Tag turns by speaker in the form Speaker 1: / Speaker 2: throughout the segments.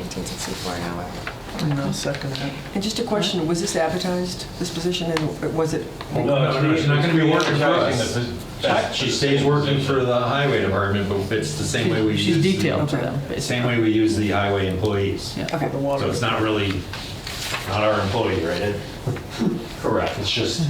Speaker 1: $19.64 an hour.
Speaker 2: And I'll second that.
Speaker 3: And just a question, was this advertised, this position, and was it?
Speaker 4: No, she's not going to be working for us.
Speaker 5: That- She stays working for the highway department, but it's the same way we use.
Speaker 4: She's
Speaker 5: the-
Speaker 4: detailed to them,
Speaker 5: Same
Speaker 4: basically.
Speaker 5: way we use the highway employees.
Speaker 4: Yeah.
Speaker 3: Okay.
Speaker 2: The
Speaker 5: So
Speaker 2: water.
Speaker 5: it's not really, not our employee, right? It- Correct, it's just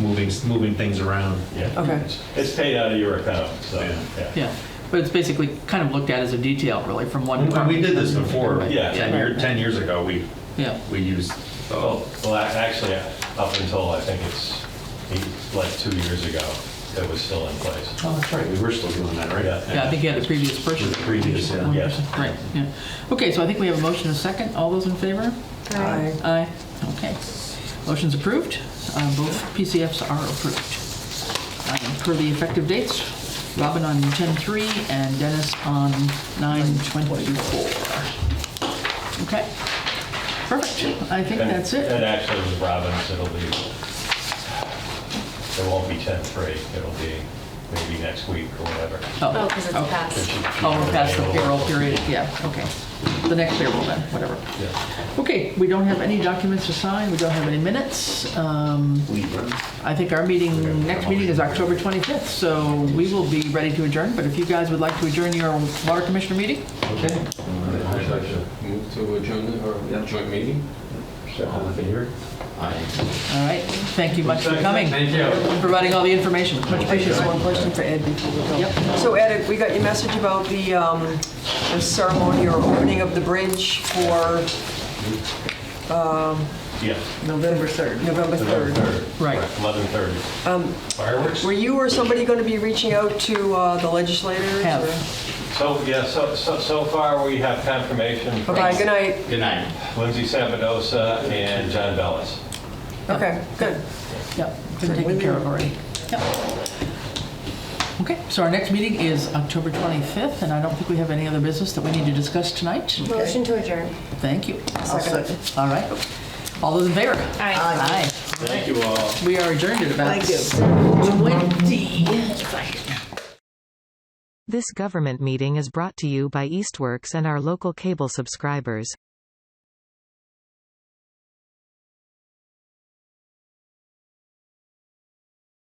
Speaker 5: moving, moving things around.
Speaker 6: Yeah.
Speaker 3: Okay.
Speaker 6: It's paid out of your account, so,
Speaker 5: Yeah.
Speaker 6: yeah.
Speaker 4: Yeah, but it's basically kind of looked at as a detail, really, from one
Speaker 5: And
Speaker 4: department.
Speaker 5: we did this before,
Speaker 6: Yeah.
Speaker 5: 10 years, 10 years ago, we,
Speaker 4: Yeah,
Speaker 5: we used, oh,
Speaker 6: Well, well, ac- actually, up until, I think it's eight- like two years ago, it was still in place.
Speaker 5: oh, that's right, we were still doing that, right?
Speaker 6: Yeah.
Speaker 4: yeah, I think you had the previous
Speaker 5: With
Speaker 4: purchase.
Speaker 5: the previous, yeah.
Speaker 6: Yes.
Speaker 4: Right, yeah. Okay, so I think we have a motion and a second. All those in favor?
Speaker 3: Aye.
Speaker 4: Aye. Okay. Motion's approved. Uh, Both PCFs are approved. Um, Per the effective dates, Robin on 10-3 and Dennis on 9-24. Okay. Perfect. I think
Speaker 6: And-
Speaker 4: that's it.
Speaker 6: And actually, with Robbins, it'll be, it won't be 10-3, it'll be maybe next week or whatever.
Speaker 1: Oh, because it's
Speaker 4: oh.
Speaker 1: past.
Speaker 4: Oh, we're past the payroll period, yeah, okay. The next payroll then, whatever.
Speaker 6: Yeah.
Speaker 4: Okay, we don't have any documents to sign, we don't have any minutes. Um, I think our meeting, next meeting is October 25th, so we will be ready to adjourn, but if you guys would like to adjourn your water commissioner meeting,
Speaker 7: Okay. I'd like to move to adjourn the- or yeah, joint meeting.
Speaker 5: All in favor? Aye.
Speaker 4: all right? Thank you much for coming,
Speaker 7: Thank you.
Speaker 4: providing all the information.
Speaker 3: Much appreciated. One question for Ed before we go.
Speaker 4: Yep.
Speaker 3: So Ed, we got your message about the um, the ceremony or opening of the bridge for
Speaker 6: Yes.
Speaker 2: November 3rd.
Speaker 3: November 3rd.
Speaker 4: Right.
Speaker 6: 11:30. Fireworks?
Speaker 3: Were you or somebody going to be reaching out to uh, the legislators?
Speaker 4: Have.
Speaker 3: or-
Speaker 6: So, yeah, so, so so far, we have confirmation from
Speaker 3: Okay, good night.
Speaker 7: Good night.
Speaker 6: Lindsay Sabadosa and John Bellis.
Speaker 3: Okay, good.
Speaker 4: Yep, been taken care of already. Yep. Okay, so our next meeting is October 25th, and I don't think we have any other business that we need to discuss tonight.
Speaker 1: Motion to adjourn.
Speaker 4: Thank you.
Speaker 2: I'll second.
Speaker 4: All right. All those in favor?
Speaker 1: Aye.
Speaker 4: Aye.
Speaker 7: Thank you all.
Speaker 4: We are adjourned at about
Speaker 2: Thank you.
Speaker 4: 20.
Speaker 8: This government meeting is brought to you by Eastworks and our local cable subscribers.